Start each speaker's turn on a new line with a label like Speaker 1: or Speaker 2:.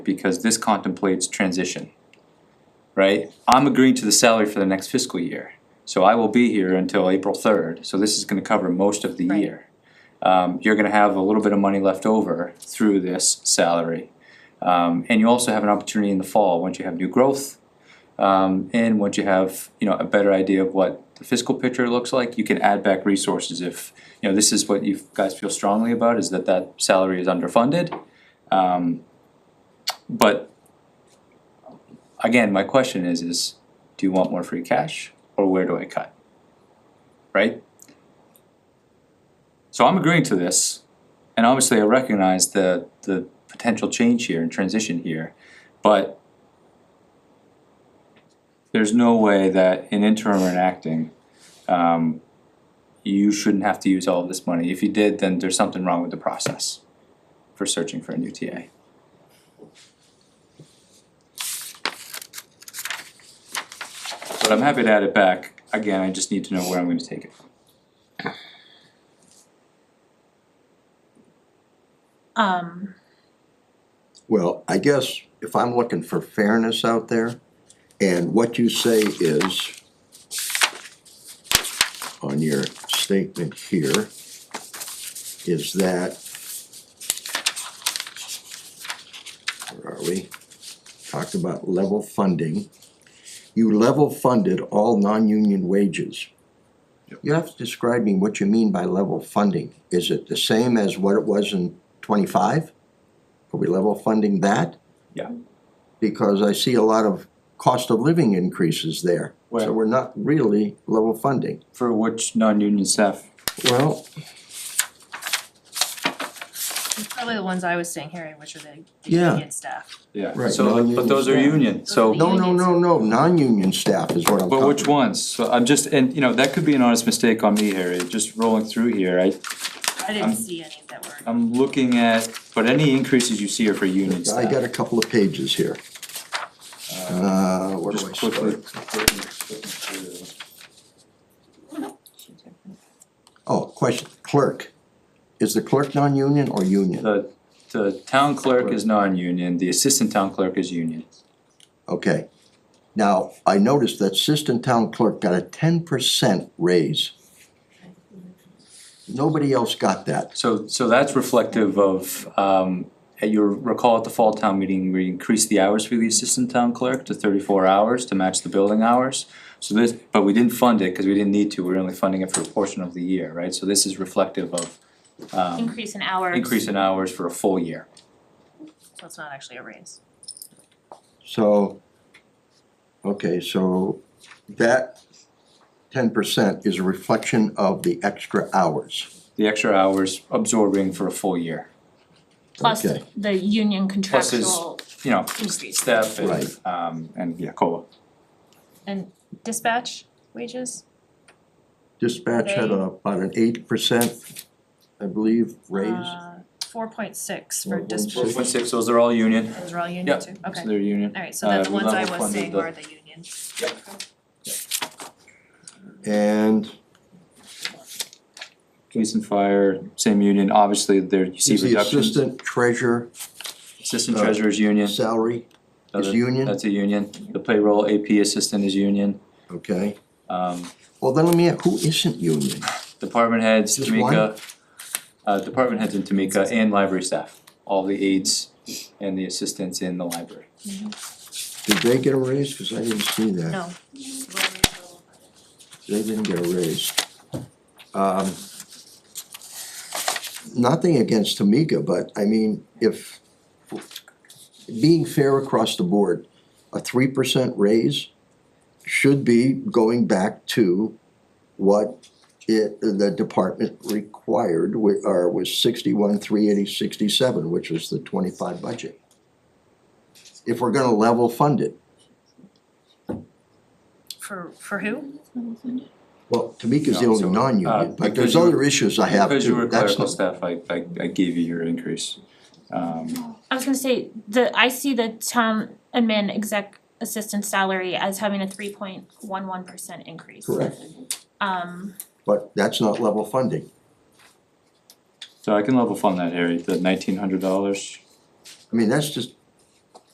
Speaker 1: because this contemplates transition. Right? I'm agreeing to the salary for the next fiscal year, so I will be here until April third, so this is gonna cover most of the
Speaker 2: Right.
Speaker 1: year. Um, you're gonna have a little bit of money left over through this salary. Um, and you also have an opportunity in the fall, once you have new growth, um, and once you have, you know, a better idea of what the fiscal picture looks like, you can add back resources if, you know, this is what you guys feel strongly about, is that that salary is underfunded. Um, but again, my question is, is do you want more free cash or where do I cut? Right? So I'm agreeing to this, and obviously I recognize the the potential change here and transition here, but there's no way that in interim or in acting, um, you shouldn't have to use all of this money. If you did, then there's something wrong with the process for searching for a new TA. But I'm happy to add it back. Again, I just need to know where I'm gonna take it from.
Speaker 2: Um,
Speaker 3: Well, I guess if I'm looking for fairness out there, and what you say is on your statement here, is that where are we? Talked about level funding. You level funded all non-union wages. You have to describe me what you mean by level funding. Is it the same as what it was in twenty-five? Are we level funding that?
Speaker 1: Yeah.
Speaker 3: Because I see a lot of cost of living increases there,
Speaker 1: Where?
Speaker 3: so we're not really level funding.
Speaker 1: For which non-union staff?
Speaker 3: Well,
Speaker 2: it's probably the ones I was saying, Harry, which are the the
Speaker 3: Yeah.
Speaker 2: union staff.
Speaker 1: Yeah,
Speaker 3: Right,
Speaker 1: so, but
Speaker 3: non-union
Speaker 1: those are
Speaker 3: staff.
Speaker 1: union, so.
Speaker 3: no, no, no, no, non-union staff is what I'm talking.
Speaker 1: But which ones? So I'm just, and you know, that could be an honest mistake on me, Harry, just rolling through here, I,
Speaker 2: I
Speaker 1: Um,
Speaker 2: didn't see any that were,
Speaker 1: I'm looking at, but any increases you see are for union staff.
Speaker 3: I got a couple of pages here. Uh, where do I
Speaker 1: Just quickly.
Speaker 3: start? Oh, question, clerk. Is the clerk non-union or union?
Speaker 1: The, the town clerk is non-union, the assistant town clerk is union.
Speaker 3: Okay. Now, I noticed that assistant town clerk got a ten percent raise. Nobody else got that.
Speaker 1: So, so that's reflective of, um, at your, recall at the fall town meeting, we increased the hours for the assistant town clerk to thirty-four hours to match the building hours. So this, but we didn't fund it, cause we didn't need to, we we're only funding it for a portion of the year, right? So this is reflective of, um,
Speaker 2: increase in hours,
Speaker 1: increase in hours for a full year.
Speaker 2: so it's not actually a raise.
Speaker 3: So, okay, so that ten percent is a reflection of the extra hours.
Speaker 1: The extra hours absorbing for a full year,
Speaker 4: plus
Speaker 3: Okay.
Speaker 4: the union
Speaker 1: Plus is-
Speaker 4: contractual
Speaker 1: you know,
Speaker 4: increase.
Speaker 1: staff and,
Speaker 3: Right.
Speaker 1: um, and, yeah, COLA.
Speaker 2: And dispatch wages,
Speaker 3: Dispatch had a- about an eight percent, I believe, raise.
Speaker 2: uh, four point six for
Speaker 3: Well, one
Speaker 2: dispatch,
Speaker 3: sec-
Speaker 1: Four point six, those are all union,
Speaker 2: those are all
Speaker 1: Yeah,
Speaker 2: union too,
Speaker 1: so
Speaker 2: okay.
Speaker 1: they're union.
Speaker 2: Alright, so that's
Speaker 1: Uh,
Speaker 2: the ones I
Speaker 1: level
Speaker 2: was
Speaker 1: funded
Speaker 2: saying
Speaker 1: the-
Speaker 2: were the union.
Speaker 3: And
Speaker 1: Police and fire, same union, obviously there, you see
Speaker 3: is the
Speaker 1: reductions.
Speaker 3: assistant treasurer
Speaker 1: Assistant
Speaker 3: uh,
Speaker 1: treasurer's union.
Speaker 3: salary is
Speaker 1: Another-
Speaker 3: union?
Speaker 1: That's a union, the payroll AP assistant is union,
Speaker 3: Okay,
Speaker 1: um,
Speaker 3: well, then let me, ask, who isn't union?
Speaker 1: department heads,
Speaker 3: Just one?
Speaker 1: Tamika. Uh, department heads in Tamika and library staff, all the aides and the assistants in the library.
Speaker 3: Did they get a raise? Cause I didn't see that.
Speaker 2: No.
Speaker 3: They didn't get a raise. Um, nothing against Tamika, but I mean, if, being fair across the board, a three percent raise should be going back to what it, the department required, wi- or was sixty-one, three eighty, sixty-seven, which was the twenty-five budget. If we're gonna level fund it,
Speaker 2: For, for who?
Speaker 3: Well, Tamika's the
Speaker 1: No, so,
Speaker 3: only
Speaker 1: uh,
Speaker 3: non-union, but
Speaker 1: because
Speaker 3: there's
Speaker 1: you-
Speaker 3: other issues I have
Speaker 1: Because you
Speaker 3: too,
Speaker 1: were
Speaker 3: that's
Speaker 1: clerical
Speaker 3: not,
Speaker 1: staff, I, I, I gave you your increase. Um,
Speaker 4: I was gonna say, the, I see the town admin exec assistant salary as having a three point one one percent increase.
Speaker 3: correct,
Speaker 4: Um,
Speaker 3: but that's not level funding.
Speaker 1: so I can level fund that, Harry, the nineteen hundred dollars.
Speaker 3: I mean, that's just